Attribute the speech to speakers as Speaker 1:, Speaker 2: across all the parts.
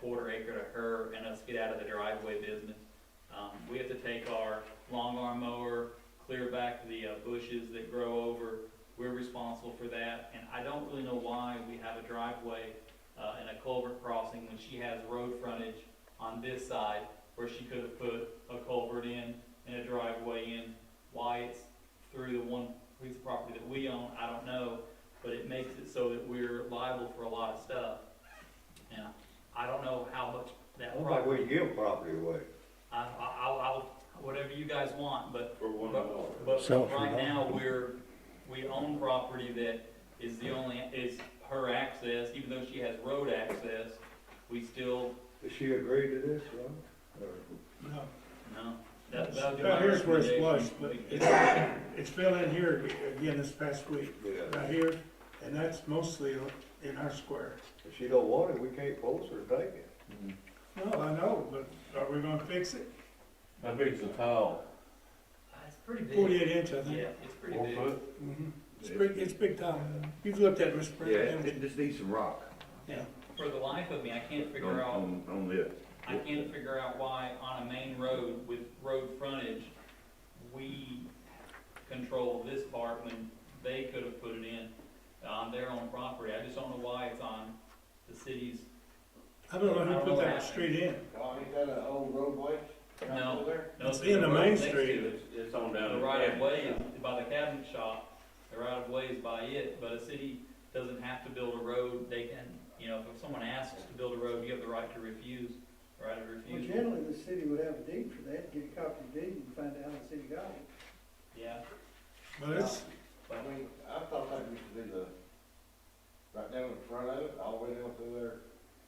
Speaker 1: quarter acre to her and us get out of the driveway business. Um, we have to take our long arm mower, clear back the uh, bushes that grow over. We're responsible for that, and I don't really know why we have a driveway, uh, and a culvert crossing when she has road frontage on this side where she could have put a culvert in and a driveway in. Why it's through the one piece of property that we own, I don't know, but it makes it so that we're liable for a lot of stuff. Now, I don't know how much that
Speaker 2: Sounds like
Speaker 1: property,
Speaker 2: we give property away.
Speaker 1: I, I, I'll, I'll- whatever you guys want, but
Speaker 3: For one dollar.
Speaker 1: But
Speaker 4: So-
Speaker 1: right now, we're, we own property that is the only, is her access, even though she has road access, we still,
Speaker 2: Does she agree to this, uh, Ron? Or-
Speaker 5: No,
Speaker 1: no. That, that would be
Speaker 5: Now,
Speaker 1: my
Speaker 5: here's where it's
Speaker 1: recommendation.
Speaker 5: was, but it's, it's fell in here again this past week,
Speaker 2: Yeah.
Speaker 5: right here, and that's mostly in our square.
Speaker 2: If she don't want it, we can't force her to take it.
Speaker 3: Mm-hmm.
Speaker 5: No, I know, but are we gonna fix it?
Speaker 3: How big's the tile?
Speaker 1: Uh, It's pretty big.
Speaker 5: Forty-eight inch, I think.
Speaker 1: Yeah, it's pretty
Speaker 3: Four
Speaker 1: big.
Speaker 3: foot?
Speaker 5: Mhm. It's big, it's big time. You've looked at it, Mr. President.
Speaker 6: just needs some rock
Speaker 5: Yeah.
Speaker 1: For the life of me, I can't figure out
Speaker 6: on this.
Speaker 1: I can't figure out why on a main road with road frontage, we control this part when they could have put it in on their own property. I just don't know why it's on the city's,
Speaker 5: I don't know who put that street in.
Speaker 3: Tom, you got an old roadway?
Speaker 1: No.
Speaker 3: There?
Speaker 1: no,
Speaker 5: It's
Speaker 1: there's
Speaker 5: in
Speaker 1: a
Speaker 5: the
Speaker 1: road
Speaker 5: main
Speaker 1: next to
Speaker 5: street.
Speaker 1: it.
Speaker 3: It's on down.
Speaker 1: The
Speaker 3: the
Speaker 1: right of
Speaker 3: back.
Speaker 1: way is by the cabinet shop, the right of way is by it, but a city doesn't have to build a road, they can, you know, if someone asks to build a road, you have the right to refuse, right of
Speaker 7: Well,
Speaker 1: refusal.
Speaker 7: generally, the city would have a deed for that, get a copy of the deed and find out how the city got it.
Speaker 1: Yeah,
Speaker 5: But it's,
Speaker 1: but
Speaker 3: I mean, I thought that used to be the, right down in front of it, all the way down through there,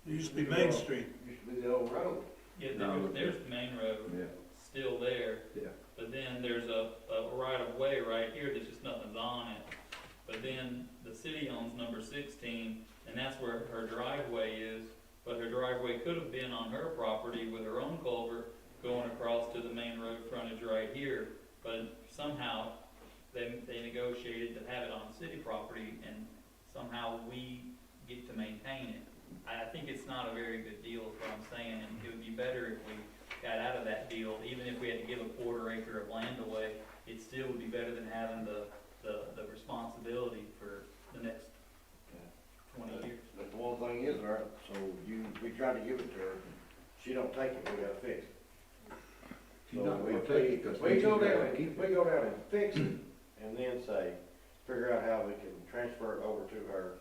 Speaker 5: it used to be Main Street.
Speaker 3: used to be the old road.
Speaker 1: yeah,
Speaker 6: No.
Speaker 1: there- there's the main road.
Speaker 6: Yeah.
Speaker 1: still there.
Speaker 6: Yeah.
Speaker 1: But then there's a, a right of way right here that's just nothing's on it. But then the city owns number sixteen, and that's where her driveway is. But her driveway could have been on her property with her own culvert going across to the main road frontage right here. But somehow, they, they negotiated to have it on city property, and somehow we get to maintain it. I, I think it's not a very good deal, is what I'm saying, and it would be better if we got out of that deal, even if we had to give a quarter acre of land away, it still would be better than having the, the, the responsibility for the next twenty years.
Speaker 3: But the one thing is, all right, so you, we tried to give it to her, she don't take it, we gotta fix it.
Speaker 6: She's
Speaker 3: So
Speaker 6: not
Speaker 3: we-
Speaker 6: gonna take it 'cause
Speaker 3: We
Speaker 6: we
Speaker 3: go
Speaker 6: gotta
Speaker 3: down,
Speaker 6: keep
Speaker 3: and-
Speaker 6: it.
Speaker 3: we go down and fix it, and then say, figure out how we can transfer it over to her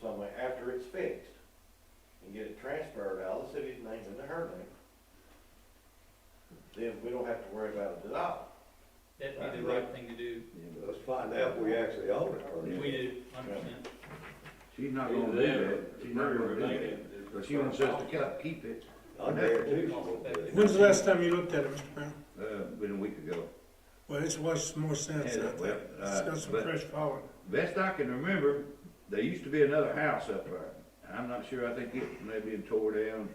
Speaker 3: somewhere after it's fixed. And get it transferred out of the city's name into her name. Then we don't have to worry about it at all.
Speaker 1: That'd be the right thing to do.
Speaker 2: Let's find out if we actually own it or
Speaker 1: We
Speaker 2: not.
Speaker 1: do, hundred percent.
Speaker 6: She's not gonna do that, she's not gonna do that, but she wants us to keep- keep it,
Speaker 2: I guarantee she won't do it.
Speaker 5: When's the last time you looked at it, Mr. Brown?
Speaker 6: uh, been a week ago.
Speaker 5: Well, it's was more sense, I
Speaker 6: Yeah,
Speaker 5: think.
Speaker 6: well,
Speaker 5: It's
Speaker 6: uh,
Speaker 5: got some
Speaker 6: but-
Speaker 5: fresh power.
Speaker 6: Best I can remember, there used to be another house up there, and I'm not sure, I think it may have been tore down.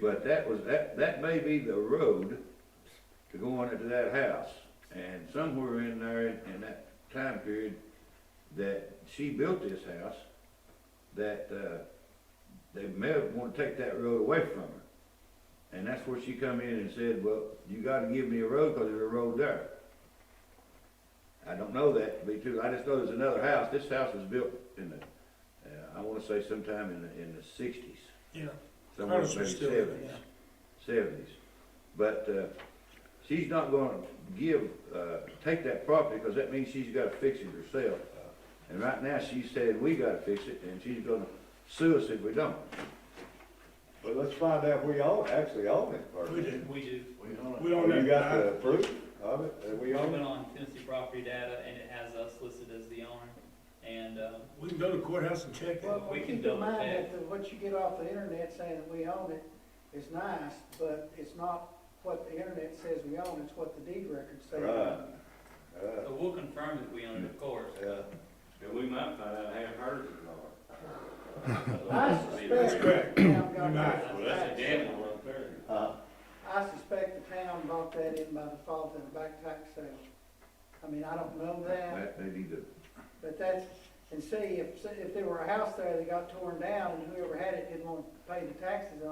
Speaker 6: But that was, that, that may be the road to go on into that house, and somewhere in there, in that time period, that she built this house, that, uh, they may have wanted to take that road away from her. And that's where she come in and said, well, you gotta give me a road, cause there's a road there. I don't know that to be true, I just know there's another house, this house was built in the, uh, I wanna say sometime in the, in the sixties.
Speaker 5: Yeah.
Speaker 6: Somewhere
Speaker 5: Ours
Speaker 6: maybe
Speaker 5: was still living,
Speaker 6: seventies,
Speaker 5: yeah.
Speaker 6: seventies. But, uh, she's not gonna give, uh, take that property, cause that means she's gotta fix it herself. And right now, she said, we gotta fix it, and she's gonna sue us if we don't.
Speaker 2: But let's find out if we own, actually own it first.
Speaker 5: We did.
Speaker 1: We do.
Speaker 3: We don't.
Speaker 5: We
Speaker 2: Or
Speaker 5: don't
Speaker 2: you
Speaker 5: have
Speaker 2: got the proof of it, that
Speaker 1: We
Speaker 2: we own it?
Speaker 1: went on Tennessee property data, and it has us listed as the owner, and, um,
Speaker 5: We can go to courthouse and check it.
Speaker 7: Well,
Speaker 1: we can
Speaker 7: keep
Speaker 1: double
Speaker 7: in mind
Speaker 1: check.
Speaker 7: that the- what you get off the internet saying that we own it is nice, but it's not what the internet says we own, it's what the deed records say. we
Speaker 2: Right.
Speaker 7: own.
Speaker 2: Uh,
Speaker 1: so we'll confirm that we own it, of course.
Speaker 2: yeah.
Speaker 3: And we might find out half hers is ours.
Speaker 7: I
Speaker 5: That's correct.
Speaker 7: suspect the town
Speaker 5: You
Speaker 7: got
Speaker 5: might.
Speaker 7: that.
Speaker 3: right there.
Speaker 2: Huh?
Speaker 7: I suspect the town bought that in by default in a back tax sale. I mean, I don't know that,
Speaker 6: That may be the
Speaker 7: but that's, and see, if, if there were a house there that got torn down, and whoever had it didn't want to pay the taxes on